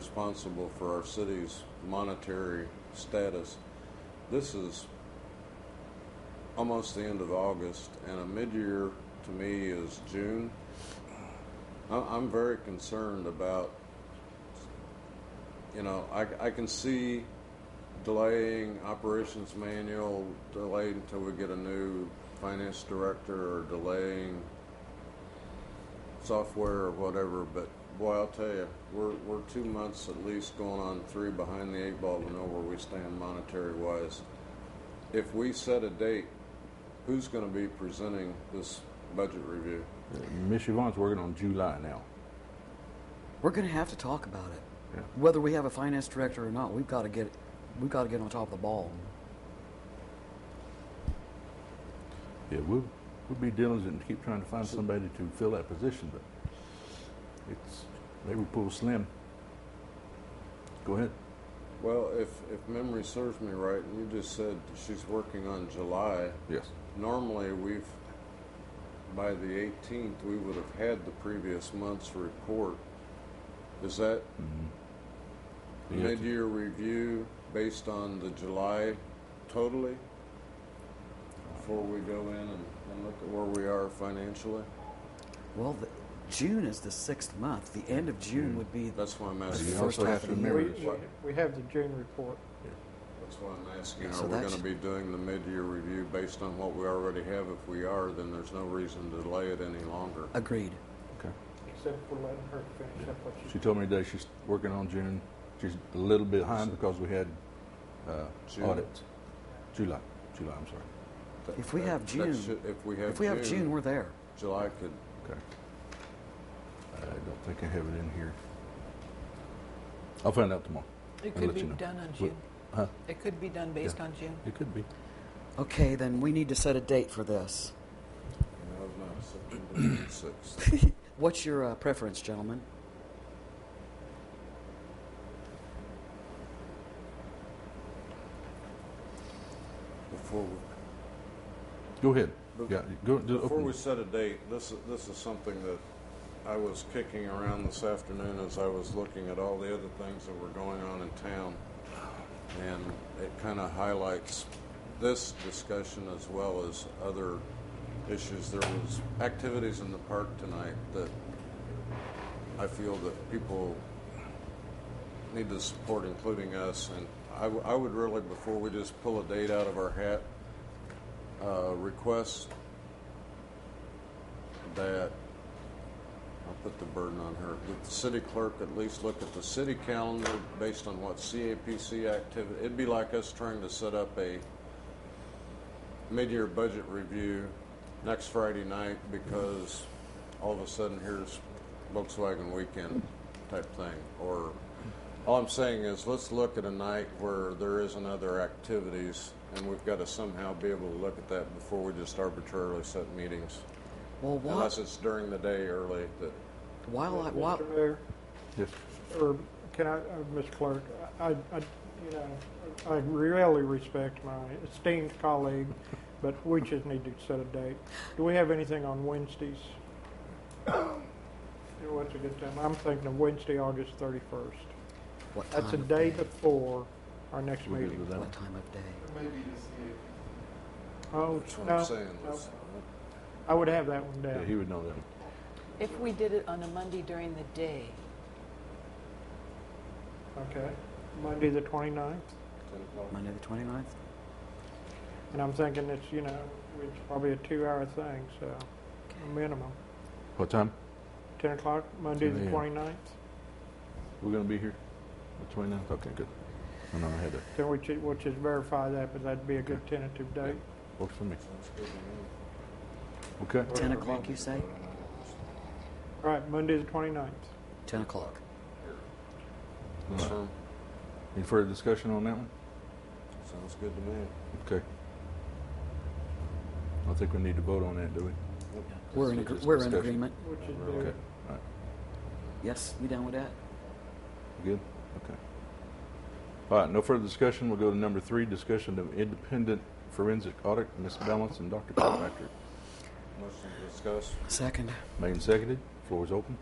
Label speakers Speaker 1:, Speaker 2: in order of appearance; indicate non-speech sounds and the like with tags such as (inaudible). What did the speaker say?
Speaker 1: responsible for our city's monetary status. This is almost the end of August, and a mid-year to me is June. I- I'm very concerned about, you know, I, I can see delaying operations manual, delayed until we get a new finance director, or delaying software or whatever, but boy, I'll tell you, we're, we're two months at least going on three behind the eight ball to know where we stand monetary wise. If we set a date, who's going to be presenting this budget review?
Speaker 2: Miss Yvonne's working on July now.
Speaker 3: We're going to have to talk about it.
Speaker 2: Yeah.
Speaker 3: Whether we have a finance director or not, we've got to get we've got to get on top of the ball.
Speaker 2: Yeah, we'll, we'll be diligent to keep trying to find somebody to fill that position, but it's, they were pulled slim. Go ahead.
Speaker 1: Well, if, if memory serves me right, and you just said she's working on July,
Speaker 2: Yes.
Speaker 1: normally we've, by the 18th, we would have had the previous month's report. Is that
Speaker 3: Mm-hmm.
Speaker 2: You have to-
Speaker 1: mid-year review based on the July totally? Before we go in and, and look at where we are financially?
Speaker 3: Well, the, June is the sixth month. The end of June would be
Speaker 1: That's why I'm
Speaker 2: Uh, You
Speaker 1: asking,
Speaker 3: Yeah. first
Speaker 2: also
Speaker 3: half
Speaker 2: have
Speaker 3: of
Speaker 2: to
Speaker 3: the
Speaker 4: We,
Speaker 2: remember
Speaker 3: year.
Speaker 2: this.
Speaker 4: we- we have the June report.
Speaker 1: that's why I'm asking,
Speaker 3: So
Speaker 1: are we
Speaker 3: that's-
Speaker 1: gonna be doing the mid-year review based on what we already have? If we are, then there's no reason to delay it any longer.
Speaker 3: agreed.
Speaker 2: Okay.
Speaker 4: Except for letting her finish up what
Speaker 2: She
Speaker 4: she,
Speaker 2: told me today she's working on June. She's a little behind because we had uh,
Speaker 1: June.
Speaker 2: audits. July. July, I'm sorry.
Speaker 1: That-
Speaker 3: If we
Speaker 1: that-
Speaker 3: have
Speaker 1: that
Speaker 3: June-
Speaker 1: should- If we have
Speaker 3: If we have June,
Speaker 1: June,
Speaker 3: we're there.
Speaker 1: July could,
Speaker 2: Okay. I don't think I have it in here. I'll find out tomorrow.
Speaker 5: It
Speaker 2: I'll
Speaker 5: could
Speaker 2: let
Speaker 5: be
Speaker 2: you know.
Speaker 5: done on
Speaker 2: Well,
Speaker 5: June.
Speaker 2: huh?
Speaker 5: It could be done based
Speaker 2: Yeah.
Speaker 5: on June.
Speaker 2: It could be.
Speaker 3: Okay, then we need to set a date for this.
Speaker 1: no, it's not September sixth.
Speaker 3: What's your uh, preference, gentlemen?
Speaker 1: Before we
Speaker 2: Go ahead.
Speaker 1: But-
Speaker 2: Yeah, go, do-
Speaker 1: Before
Speaker 2: open
Speaker 1: we
Speaker 2: it.
Speaker 1: set a date, this is, this is something that I was kicking around this afternoon as I was looking at all the other things that were going on in town. And it kind of highlights this discussion as well as other issues. There was activities in the park tonight that I feel that people need to support, including us. And I, w- I would really, before we just pull a date out of our hat, uh, request that, I'll put the burden on her, that the city clerk at least look at the city calendar based on what CAPC activity, it'd be like us trying to set up a mid-year budget review next Friday night because all of a sudden here's Volkswagen weekend type thing, or, all I'm saying is, let's look at a night where there isn't other activities, and we've got to somehow be able to look at that before we just arbitrarily set meetings.
Speaker 3: Well, while,
Speaker 1: Unless it's during the day early, that,
Speaker 3: while I, while,
Speaker 4: Mr. Mayor,
Speaker 2: Yes.
Speaker 4: or can I, uh, Ms. Clerk, I, I, you know, I really respect my esteemed colleague, but we just need to set a date. Do we have anything on Wednesdays? You know, what's a good time? I'm thinking of Wednesday, August thirty-first.
Speaker 3: what time
Speaker 4: That's a
Speaker 3: of
Speaker 4: day
Speaker 3: day?
Speaker 4: before our next
Speaker 2: We're good with
Speaker 4: meeting.
Speaker 2: that.
Speaker 3: What time of day?
Speaker 4: Oh,
Speaker 1: that's what
Speaker 4: no,
Speaker 1: I'm saying,
Speaker 4: no.
Speaker 1: let's-
Speaker 4: I would have that one
Speaker 2: Yeah,
Speaker 4: down.
Speaker 2: he would know that.
Speaker 5: If we did it on a Monday during the day,
Speaker 4: Okay, Monday the 29th,
Speaker 1: ten o'clock.
Speaker 3: Monday the 29th?
Speaker 4: and I'm thinking it's, you know, it's probably a two-hour thing, so a minimum.
Speaker 2: What time?
Speaker 4: 10 o'clock, Monday the
Speaker 2: 10 a.m.
Speaker 4: 29th.
Speaker 2: We're going to be here? The 29th? Okay, good. I know I had that.
Speaker 4: Then we should, we'll just verify that, but that'd be a good tentative date.
Speaker 2: Works for me.
Speaker 1: Sounds good to me.
Speaker 2: Okay.
Speaker 3: 10 o'clock, you say?
Speaker 4: All right, Monday the 29th.
Speaker 3: 10 o'clock.
Speaker 2: All right.
Speaker 1: Sound-
Speaker 2: Any further discussion on that one?
Speaker 1: Sounds good to me.
Speaker 2: Okay. I think we need to vote on that, do we?
Speaker 3: We're in,
Speaker 2: Just
Speaker 3: agree- we're in
Speaker 2: discussion.
Speaker 3: agreement.
Speaker 4: Which is
Speaker 2: Okay.
Speaker 4: due.
Speaker 2: All right.
Speaker 3: Yes, you down with that?
Speaker 2: Good? Okay. All right, no further discussion. We'll go to number three, discussion of independent forensic audit, Ms. Balance (coughs) and Dr. Kirkpatrick.
Speaker 1: Motion to discuss.
Speaker 3: Second.
Speaker 2: Made and seconded. Floor is open.